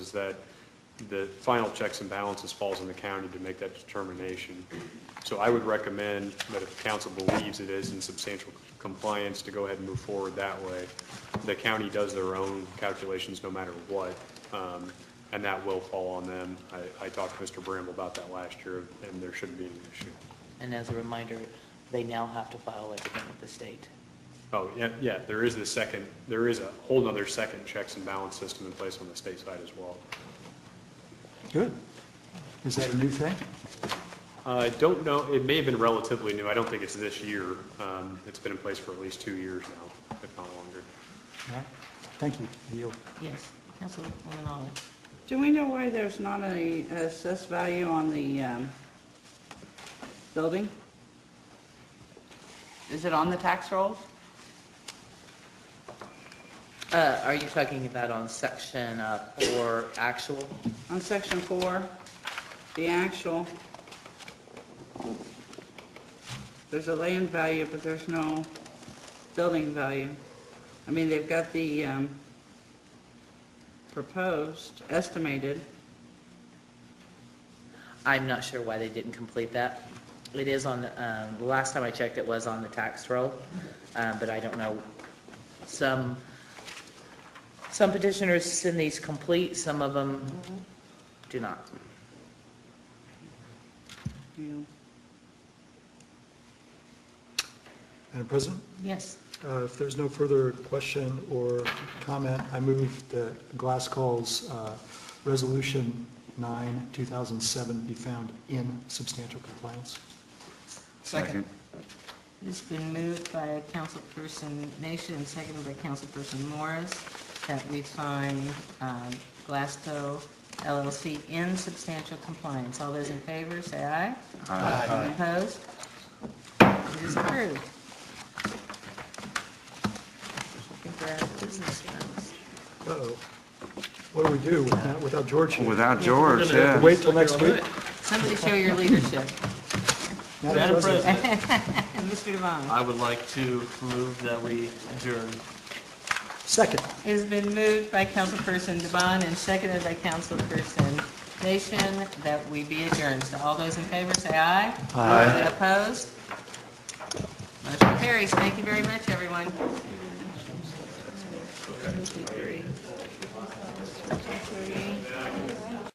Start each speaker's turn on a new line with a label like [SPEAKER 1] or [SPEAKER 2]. [SPEAKER 1] is that the final checks and balances falls on the county to make that determination. So I would recommend that if council believes it is in substantial compliance, to go ahead and move forward that way. The county does their own calculations no matter what, um, and that will fall on them. I, I talked to Mr. Bramble about that last year, and there shouldn't be any issue.
[SPEAKER 2] And as a reminder, they now have to file everything with the state.
[SPEAKER 1] Oh, yeah, yeah, there is the second, there is a whole nother second checks and balance system in place on the state side as well.
[SPEAKER 3] Good. Is that a new thing?
[SPEAKER 1] I don't know, it may have been relatively new, I don't think it's this year. Um, It's been in place for at least two years now, if not longer.
[SPEAKER 3] All right. Thank you. Yield.
[SPEAKER 2] Yes, Councilwoman Olive.
[SPEAKER 4] Do we know why there's not an assessed value on the um, building? Is it on the tax rolls?
[SPEAKER 2] Uh, Are you talking about on section uh, four, actual?
[SPEAKER 4] On section four, the actual, there's a land value, but there's no building value. I mean, they've got the um, proposed, estimated.
[SPEAKER 2] I'm not sure why they didn't complete that. It is on, the um, the last time I checked, it was on the tax roll, um, but I don't know. Some, some petitioners send these complete, some of them do not.
[SPEAKER 4] you
[SPEAKER 3] Madam President,
[SPEAKER 2] Yes.
[SPEAKER 3] uh, if there's no further question or comment, I move that Glasscall's uh, Resolution 9, 2007 be found in substantial compliance.
[SPEAKER 5] Second.
[SPEAKER 6] It's been moved by Councilperson Nation and seconded by Councilperson Morris that we find um, Glasgow LLC in substantial compliance. All those in favor, say aye. Aye. Opposed? It is approved. I think we're out of business, folks.
[SPEAKER 3] Uh-oh. What do we do without- without George here?
[SPEAKER 5] Without George, yeah.
[SPEAKER 3] Wait till next week?
[SPEAKER 6] Somebody show your leadership.
[SPEAKER 3] Madam President.
[SPEAKER 6] Mr. Devon.
[SPEAKER 7] I would like to move that we adjourn.
[SPEAKER 3] Second.
[SPEAKER 6] It's been moved by Councilperson Devon and seconded by Councilperson Nation that we be adjourned. So all those in favor, say aye. Aye. Opposed? Motion carries. Thank you very much, everyone. Two, three. Two, three.